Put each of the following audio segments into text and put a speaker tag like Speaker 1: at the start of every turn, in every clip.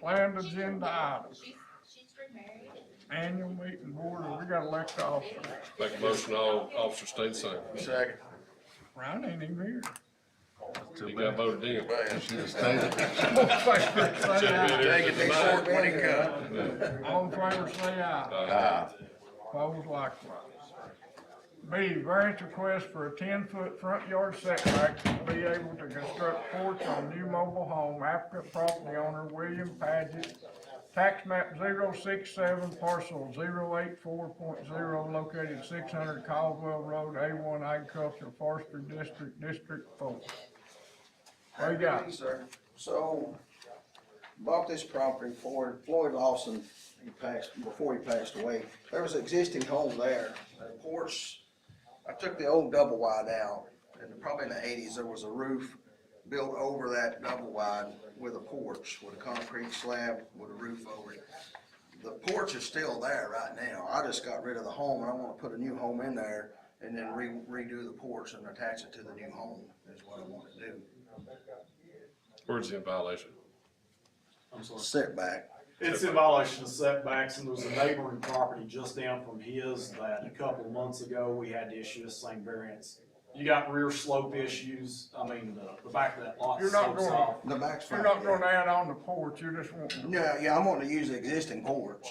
Speaker 1: Planned agenda items,
Speaker 2: She's, she's remarried.
Speaker 1: annual meeting board, we got elected officers.
Speaker 3: Make a motion, all officers stay the same.
Speaker 4: Second.
Speaker 1: Ryan ain't even here.
Speaker 3: He got voted in.
Speaker 1: Say aye.
Speaker 4: Take it, they short when it comes.
Speaker 1: All in favor, say aye.
Speaker 4: Ah,
Speaker 1: Opposed likewise. B, variance request for a ten-foot front yard setback to be able to construct porch on new mobile home, applicant property owner William Paget, tax map 067, parcel 084.0, located six hundred Caldwell Road, A one agricultural forestry district, District Four. What you got?
Speaker 5: Sir, so bought this property for Floyd Lawson, he passed, before he passed away. There was an existing home there, a porch, I took the old double wide out, and probably in the eighties, there was a roof built over that double wide with a porch, with a concrete slab, with a roof over it. The porch is still there right now, I just got rid of the home, and I wanna put a new home in there, and then re- redo the porch and attach it to the new home, is what I wanna do.
Speaker 3: Where's the violation?
Speaker 6: I'm sorry.
Speaker 5: Setback,
Speaker 6: It's in violation of setbacks, and there was a neighboring property just down from his that a couple of months ago, we had to issue the same variance. You got rear slope issues, I mean, the, the back of that lot
Speaker 1: You're not
Speaker 6: slopes
Speaker 1: going-
Speaker 6: off.
Speaker 5: The back's fine.
Speaker 1: You're not gonna add on the porch, you're just wanting,
Speaker 5: No, yeah, I'm gonna use the existing porch.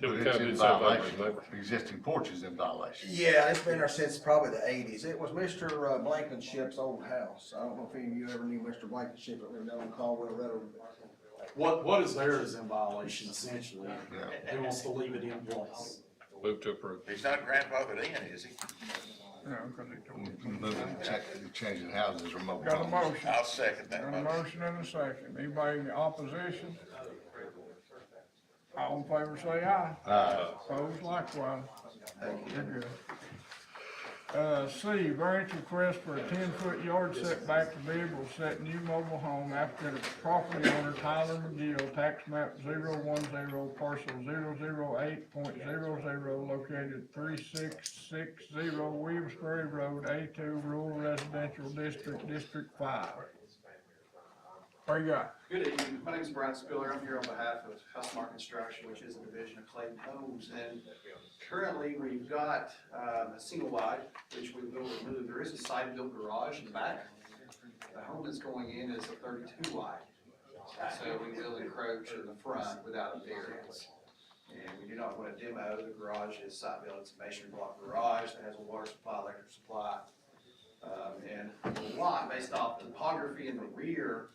Speaker 3: Did we
Speaker 7: But
Speaker 3: kind
Speaker 7: it's
Speaker 3: of
Speaker 7: in
Speaker 3: did something
Speaker 7: violation.
Speaker 3: about it?
Speaker 7: Existing porch is in violation.
Speaker 5: Yeah, it's been there since probably the eighties. It was Mr. uh, Blankenship's old house. I don't know if any of you ever knew Mr. Blankenship, that lived down Caldwell Road.
Speaker 6: What, what is there is in violation essentially.
Speaker 7: Yeah.
Speaker 6: He wants to leave it in place.
Speaker 3: Move to approve.
Speaker 4: he's not grandfathered in, is he?
Speaker 1: you know, 'cause it don't.
Speaker 7: Moving, cha- changing houses or mobile
Speaker 1: Got a
Speaker 7: homes.
Speaker 1: motion.
Speaker 4: I'll second that
Speaker 1: Got a
Speaker 4: motion.
Speaker 1: motion and a second. Anybody in opposition? All in favor say aye.
Speaker 7: Uh,
Speaker 1: Opposed likewise.
Speaker 5: Thank
Speaker 1: You're good. Uh, C, variance request for a ten-foot yard setback to be able to set new mobile home after the property owner Tyler McGill, tax map 010, parcel 008.00, located three six six zero Williamsbury Road, A two, rural residential district, District Five. What you got?
Speaker 8: Good evening, my name is Brian Spiller, I'm here on behalf of Housemar Construction, which is a division of Clayton Homes, and currently, we've got, um, a single wide, which we will remove, there is a side-built garage in the back. The home that's going in is a thirty-two wide, so we will encroach in the front without a variance. And we do not want a demo, the garage is side-built, it's a masonry block garage that has a water supply, electric supply. Um, and the lot, based off topography in the rear,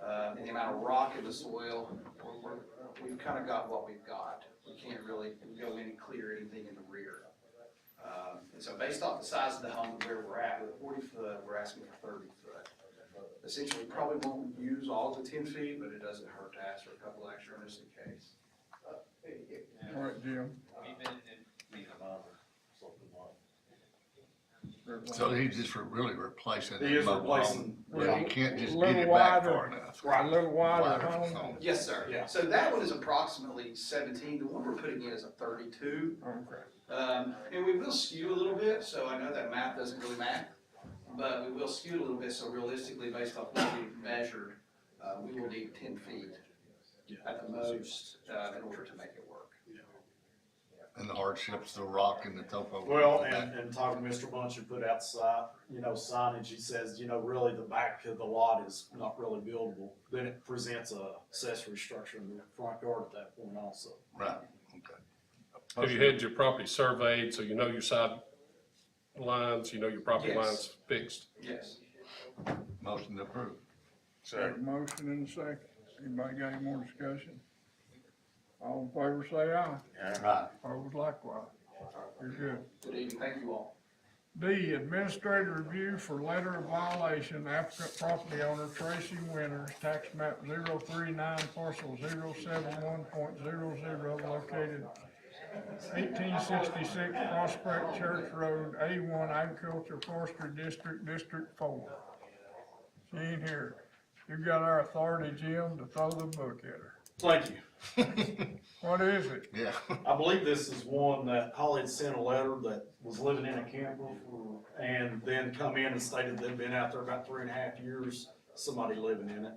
Speaker 8: uh, and the amount of rock in the soil, we're- we're- we've kind of got what we've got. We can't really go in and clear anything in the rear. Um, And so based off the size of the home, and where we're at, with forty foot, we're asking for thirty foot. Essentially, we probably won't use all the ten feet, but it doesn't hurt to ask for a couple extra just in case.
Speaker 1: All right, Jim.
Speaker 7: so he just re- really replacing.
Speaker 6: He is
Speaker 7: the mobile
Speaker 6: replacing-
Speaker 7: home. Yeah, you can't just
Speaker 1: Little
Speaker 7: get it back
Speaker 1: wider.
Speaker 7: far enough.
Speaker 1: A little wider
Speaker 7: Wider
Speaker 1: home.
Speaker 7: home.
Speaker 8: Yes, sir.
Speaker 6: Yeah.
Speaker 8: So that one is approximately seventeen, the one we're putting in is a thirty-two.
Speaker 1: Okay.
Speaker 8: Um, and we will skew a little bit, so I know that math doesn't really math, but we will skew a little bit, so realistically, based off what we've measured, uh, we will need ten feet at the most, uh, in order to make it work.
Speaker 7: And the hardships, the rock and the topo.
Speaker 6: Well, and, and talking to Mr. Bunch and put out si- you know, signage, he says, you know, really the back of the lot is not really buildable. Then it presents a accessory structure in the front yard at that point also.
Speaker 7: Right, okay.
Speaker 3: Have you had your property surveyed, so you know your side lines, you know your property
Speaker 8: Yes.
Speaker 3: lines fixed?
Speaker 8: Yes.
Speaker 7: Motion approved.
Speaker 4: Second.
Speaker 1: Got a Motion and a second. Anybody got any more discussion? All in favor say aye.
Speaker 7: Right.
Speaker 1: Opposed likewise. You're good.
Speaker 8: Good evening, thank you all.
Speaker 1: D, administrative review for letter of violation, applicant property owner Tracy Winters, tax map 039 parcel 071.00, located eighteen sixty-six Prospect Church Road, A one Agriculture Forestry District, District Four. She ain't here. You got our authority, Jim, to throw the book at her.
Speaker 6: Thank you.
Speaker 1: What is it?
Speaker 7: Yeah.
Speaker 6: I believe this is one that Holly had sent a letter that was living in a camper and then come in and stated they'd been out there about three and a half years, somebody living in it.